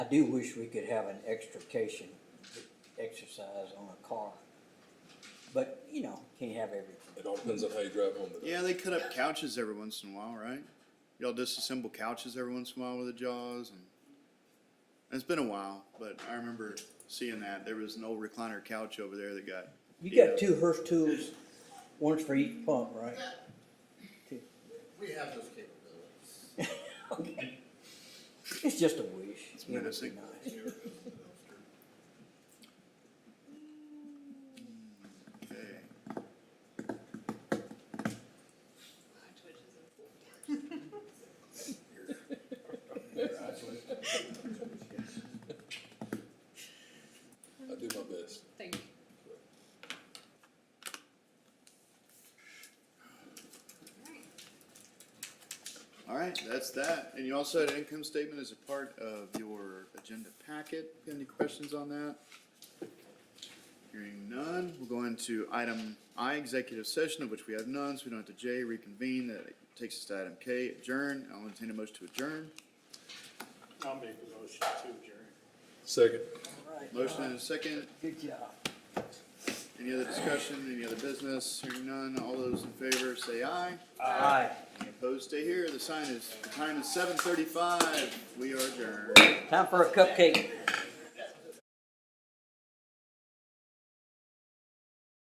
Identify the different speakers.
Speaker 1: do wish we could have an extrication exercise on a car. But, you know, can't have everything.
Speaker 2: It all depends on how you drive home today.
Speaker 3: Yeah, they cut up couches every once in a while, right? Y'all disassemble couches every once in a while with the jaws and, and it's been a while, but I remember seeing that. There was an old recliner couch over there that got.
Speaker 1: You
Speaker 3: beat
Speaker 1: got
Speaker 3: up.
Speaker 1: two Hurst tools, one's for each pump, right?
Speaker 4: We have those capabilities.
Speaker 1: Okay. It's just a wish. It would be
Speaker 3: menacing.
Speaker 1: nice.
Speaker 3: Okay.
Speaker 2: I do my best.
Speaker 5: Thank you.
Speaker 3: All right, that's that. And you also had an income statement as a part of your agenda packet. Any questions on that? Hearing none, we'll go into item I, executive session, of which we have none, so we don't have to J, reconvene. That takes us to item K, adjourn. I'll entertain a motion to adjourn.
Speaker 6: I'll make a motion to adjourn.
Speaker 2: Second.
Speaker 3: Motion and a second.
Speaker 1: Good job.
Speaker 3: Any other discussion, any other business? Hearing none, all those in favor say aye.
Speaker 1: Aye.
Speaker 3: Any opposed, stay here. The sign is, the time is seven thirty-five. We are adjourned.
Speaker 1: Time for a cupcake.